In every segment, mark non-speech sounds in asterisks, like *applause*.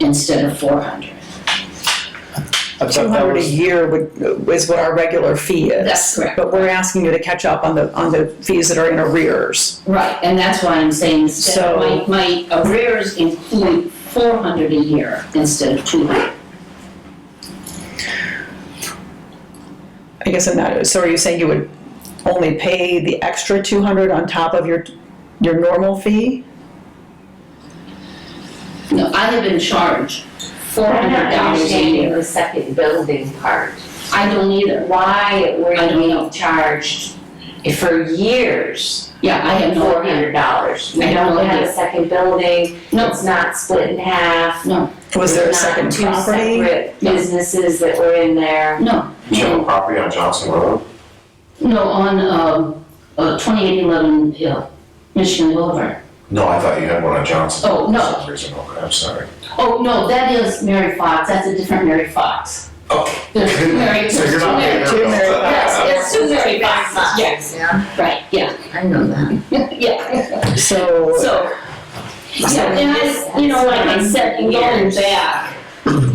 instead of four hundred. I Two thought that hundred a was- year would, is what our regular fee is. That's correct. But we're asking you to catch up on the, on the fees that are in arrears. Right, and that's why I'm saying instead, So- my, my arrears include four hundred a year instead of two hundred. I guess I'm not, so are you saying you would only pay the extra two hundred on top of your, your normal fee? No, I have been charged four I'm hundred not dollars a understanding year. the second building part. I don't either. Why were I don't know. you charged for years Yeah, I have no four idea. hundred dollars? I We have don't no have idea. a second building, No, it's not split in half. no, Was there a There's not second property? Two separate No. businesses that were in there. no, Do you have a property on Johnson Road? no, on, um, uh, twenty-eight eleven Hill, Michigan Boulevard. No, I thought you had one on Johnson. Oh, For no. some reason, okay, I'm sorry. Oh, no, that is Mary Fox, that's a different Mary Fox. Oh. *laughs* There's two Mary, So you're there's two not Mary. paying Two their Mary- bill. Yes, it's two Mary Foxes, yes, Yeah, right, yeah, I know *laughs* that. yeah. So, So, so, and I, you know, like I said, in going back,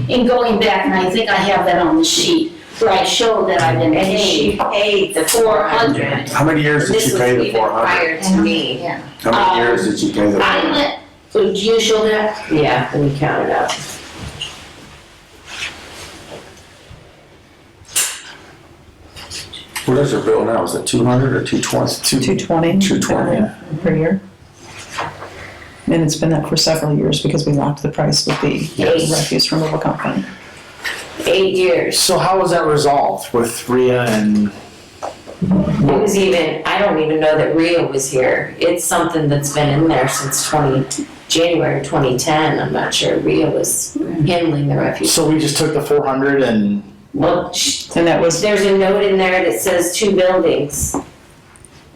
in going back, and I think I have that on the sheet, where I show that I've been And she paid paid the four four hundred. hundred. How many years did you pay the four hundred? This was even prior to me, How Um, many years did you pay the? I let, do you show that? yeah, we counted up. What is their bill now? Is it two hundred or two twenty? two twenty? 220. Per year? And it's been that for several years because we locked the price with the Yes. refuse removal company. Eight years. So how was that resolved with Rhea and? It was even, I don't even know that Rio was here. It's something that's been in there since twenty, January twenty ten, I'm not sure. Rio was handling the refuse. So we just took the four hundred and Well, sh- And that was, there's a note in there that says two buildings.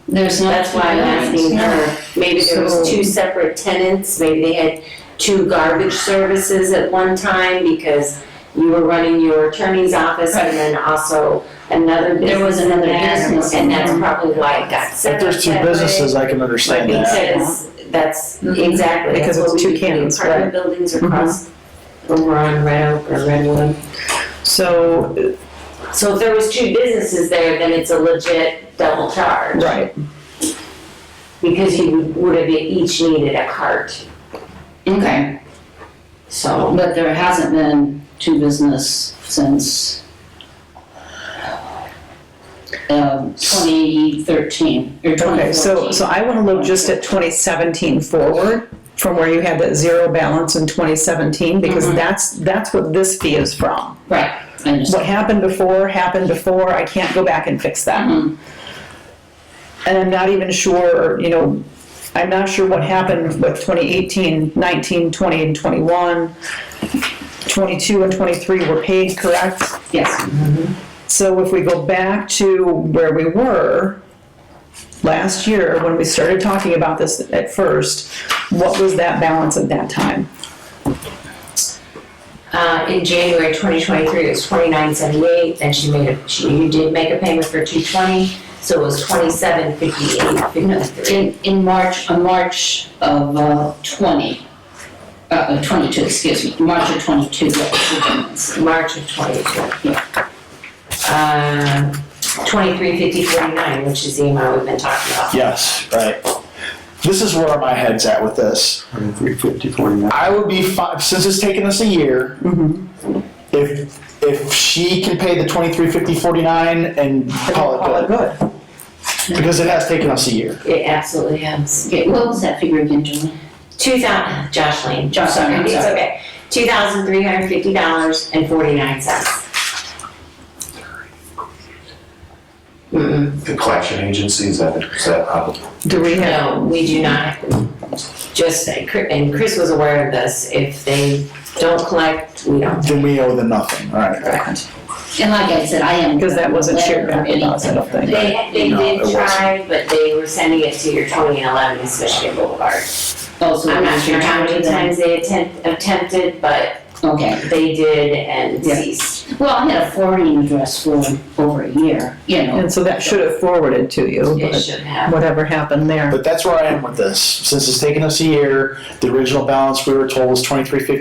There's no. That's why I'm asking her. Maybe there was two separate tenants, maybe they had two garbage services at one time because you were running your attorney's office and then also another business. There was another in there, business in And that's there. probably why it got set if up there's two that way. businesses, I can understand that. Because that's, exactly, Mm-hmm. Because it's that's what we two do, cannons, right. apartment buildings Mhm. across, over on Red Oak or Redwood. so, So if there was two businesses there, then it's a legit double charge, right, because you would have each needed a cart, Okay, so. but there hasn't been two business since, um, twenty thirteen, or twenty fourteen. okay, so, so I wanna look just at twenty seventeen forward, from where you had that zero balance in twenty seventeen, Mm-hmm. because that's, that's what this fee is from. Right, I understand. what happened before happened before. I can't go back and fix that. Mhm. And I'm not even sure, you know, I'm not sure what happened with 2018, 19, 20, and 21. 22 and 23 were paid, correct? Yes, So if we go back to where we were last year, when we started talking about this at first, what was that balance at that time? Uh, in January twenty twenty-three, it was twenty-nine seventy-eight, then she made a, she, you did make a payment for two twenty, so it was twenty-seven fifty-eight, fifty-three. in, in March, on March of uh, twenty, uh, uh, twenty-two, excuse me, March of twenty-two, that was the difference. March of twenty-two. Um, twenty-three fifty forty-nine, which is the amount we've been talking about. Yes, right. This is where my head's at with this. Three fifty forty-nine. I would be fine since it's taken us a year. Mm-hmm. If if she can pay the twenty three fifty forty nine and call Call it it good, good. because it has taken us a year. It absolutely has. Okay, what was that figure again, Julie? Two thousand, Josh Lane, Josh, Sorry, I'm it's sorry. okay. Two thousand three hundred fifty dollars and forty-nine cents. Mm-mm, The collection agency, is that, is that applicable? Do we have? no, we do not, just, and Chris was aware of this, if they don't collect, we don't. Then we owe them nothing. All right. Correct. And like I said, I am. Because that wasn't shared back with us, I don't think. They, they No, it did wasn't. try, but they were sending it to your twenty and eleven East Michigan Boulevard. Also, I'm not sure how many time. times they attempt, attempted, but Okay, they did and Yeah. ceased. well, I had a forwarding address for over a year, you know. And so that should have forwarded to you, It but should have. whatever happened there. But that's where I am with this. Since it's taken us a year, the original balance we were told was twenty three fifty